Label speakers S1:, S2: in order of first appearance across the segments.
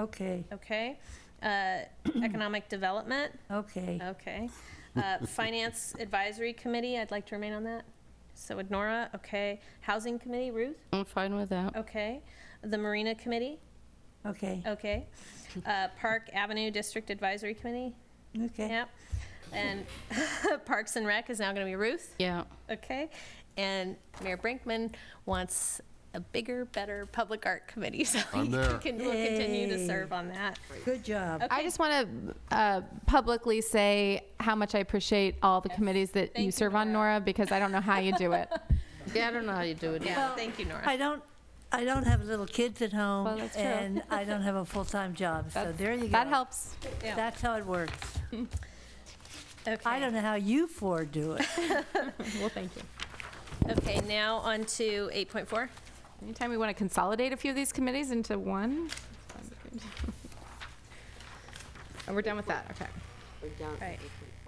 S1: Okay,
S2: okay? Uh, Economic Development,
S1: okay.
S2: okay. Uh, Finance Advisory Committee, I'd like to remain on that. So would Nora, okay. Housing Committee, Ruth,
S3: I'm fine with that.
S2: okay. The Marina Committee, Oh.
S1: Okay,
S2: okay. Uh, Park Avenue District Advisory Committee,
S1: okay.
S2: yep. And Parks and Rec is now going to be Ruth.
S3: Yeah,
S2: Okay, and Mayor Brinkman wants a bigger, better public art committee, so
S4: I'm
S2: he
S4: there.
S2: can, will continue to
S1: Yay.
S2: serve on that.
S1: Good job.
S2: Okay.
S5: I just want to uh, publicly say how much I appreciate all the committees that
S2: Thank you,
S5: you serve on,
S2: Nora.
S5: Nora, because I don't know how you do it.
S3: yeah, I don't know how you do it.
S2: Yeah, thank you, Nora.
S1: I don't, I don't have little kids at home.
S5: Well, that's true.
S1: And I don't have a full-time job, so there you go.
S5: That helps.
S2: Yeah.
S1: That's how it works. I
S2: Okay.
S1: don't know how you four do it.
S3: Well, thank you.
S2: Okay, now on to 8.4.
S5: Anytime we want to consolidate a few of these committees into one. sounds good. And Oh, we're done with that, okay.
S2: Right.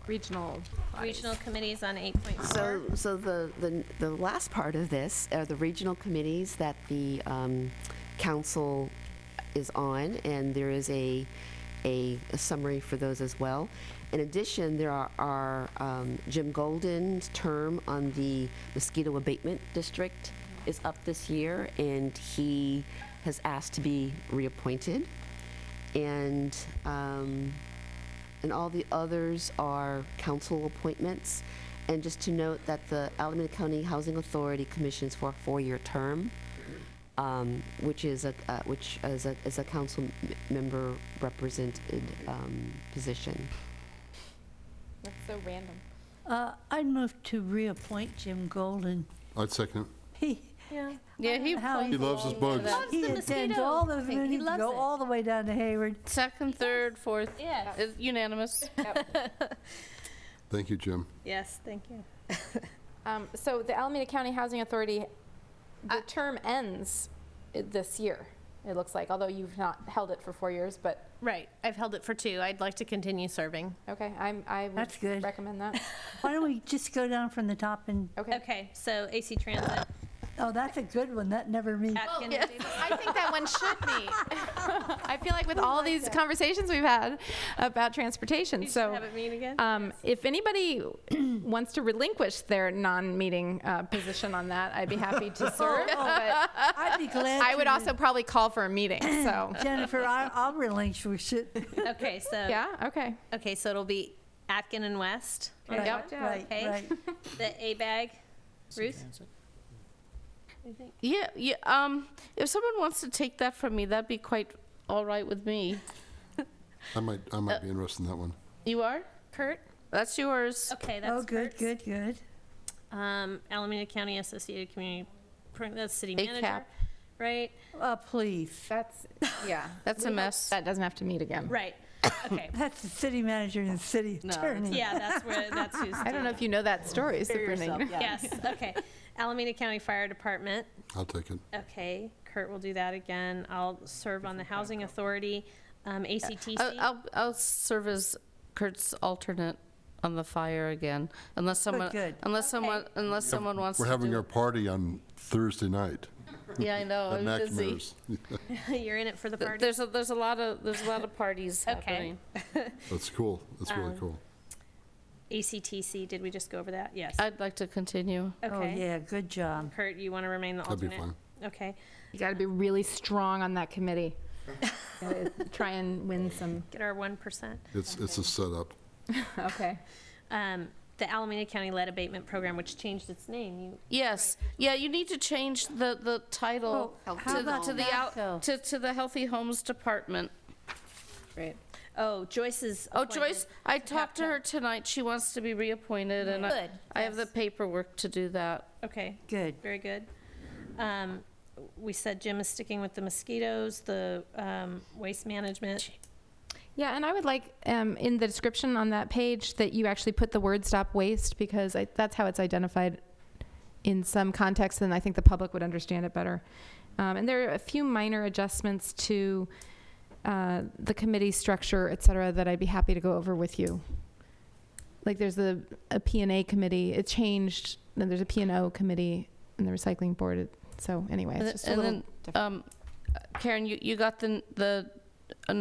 S5: Regional. bodies.
S2: Regional committees on 8.4.
S6: So, so the, the, the last part of this are the regional committees that the um, council is on, and there is a, a a summary for those as well. In addition, there are, are um, Jim Golden's term on the mosquito abatement district is up this year, and he has asked to be reappointed. And, um, and all the others are council appointments. And just to note that the Alameda County Housing Authority commissions for a four-year term, um, which is a, uh, which is a, is a council m- member represented, um, position.
S5: That's so random.
S1: Uh, I'd move to reappoint Jim Golden.
S4: I'd second.
S1: He,
S2: Yeah.
S3: Yeah, he,
S1: how
S4: He
S1: he,
S4: loves his bugs.
S2: Loves
S1: he
S2: the
S1: attends
S2: mosquito
S1: all those
S2: thing. He
S1: meetings,
S2: loves
S1: go
S2: it.
S1: all the way down to Hayward.
S3: second, third, fourth,
S2: Yeah.
S3: is unanimous.
S4: Thank you, Jim.
S2: Yes, thank you.
S7: Um, so the Alameda County Housing Authority,
S5: Uh,
S7: the term ends i- this year, it looks like, although you've not held it for four years, but,
S2: Right, I've held it for two. I'd like to continue serving.
S7: okay, I'm, I
S1: That's good.
S7: would recommend that.
S1: Why don't we just go down from the top and,
S7: Okay.
S2: Okay, so AC Transit,
S1: oh, that's a good one, that never me.
S2: Atkins.
S5: I think that one should be. I feel like with all these conversations we've had about transportation,
S2: You should
S5: so.
S2: have it meet again?
S5: Um, if anybody wants to relinquish their non-meeting uh, position on that, I'd be happy to serve. Oh, but
S1: I'd be glad
S5: I would
S1: to.
S5: also probably call for a meeting. So
S1: Jennifer, I- I'll relinquish it.
S2: Okay, so,
S5: yeah, okay.
S2: okay, so it'll be Atkin and West,
S1: Right,
S5: Yep.
S1: Right,
S2: Okay.
S1: right.
S2: the A-Bag, Ruth?
S3: Yeah, yeah, um, if someone wants to take that from me, that'd be quite all right with me.
S4: I might, I
S3: Uh,
S4: might be interested in that one.
S3: You are?
S2: Kurt?
S3: That's yours.
S2: Okay, that's
S1: Oh, good, good,
S2: Kurt's.
S1: good.
S2: Um, Alameda County Associated Community, Pro- that's city
S3: ACAP.
S2: manager, right?
S1: Uh, please,
S5: That's yeah.
S3: That's a mess.
S5: That doesn't have to meet again.
S2: Right, okay,
S1: that's the city manager and the city attorney.
S2: yeah, that's where, that's who's.
S5: I don't know if you know that story, Supernatant.
S2: Yes, okay. Alameda County Fire Department,
S4: I'll take it.
S2: okay, Kurt will do that again. I'll serve on the Housing Authority, um,
S3: I'll,
S2: ACTC.
S3: I'll, I'll serve as Kurt's alternate on the fire again, unless someone,
S1: good.
S3: unless someone, unless someone wants to
S4: We're
S3: do.
S4: having our party on Thursday night
S3: Yeah, I know,
S4: at
S3: I'm Oh, busy.
S4: McNamara's.
S2: You're in it for the
S3: Th-
S2: party.
S3: There's a, there's a lot of, there's a lot of parties
S2: Okay.
S3: happening.
S4: That's cool. That's really
S3: Uh,
S4: cool.
S2: ACTC, did we just go over that? Yes.
S3: I'd like to continue.
S1: Oh,
S2: Okay.
S1: yeah, good job.
S2: Kurt, you want to remain the
S4: That'd be
S2: alternate? Okay,
S5: You got to be really strong on that committee. Gotta Try and win some.
S2: get our one percent.
S4: It's, it's a setup.
S5: Okay.
S2: Um, the Alameda County Lead Abatement Program, which changed its name, you,
S3: Yes, yeah, you need to change the, the title
S1: Oh,
S3: to,
S1: how about
S3: to the,
S1: Nafco?
S3: out- to, to the Healthy Homes Department.
S5: Great.
S2: oh, Joyce's.
S3: Oh,
S2: appointed.
S3: Joyce, I talked to her tonight, she wants to be reappointed, and I,
S2: Good,
S3: I have the paperwork to do that.
S2: Okay,
S1: Good.
S2: very good. Um, We said Jim is sticking with the mosquitoes, the um, waste management.
S5: Yeah, and I would like um, in the description on that page that you actually put the word "stop waste" because I, that's how it's identified in some contexts, and I think the public would understand it better. Um, and there are a few minor adjustments to uh, the committee structure, et cetera, that I'd be happy to go over with you. Like there's a, a P&A committee. It changed. And there's a P&O committee and the recycling board. It, so anyway, it's just a
S3: And
S5: little
S3: then,
S5: different.
S3: um, Karen, you, you got the, the a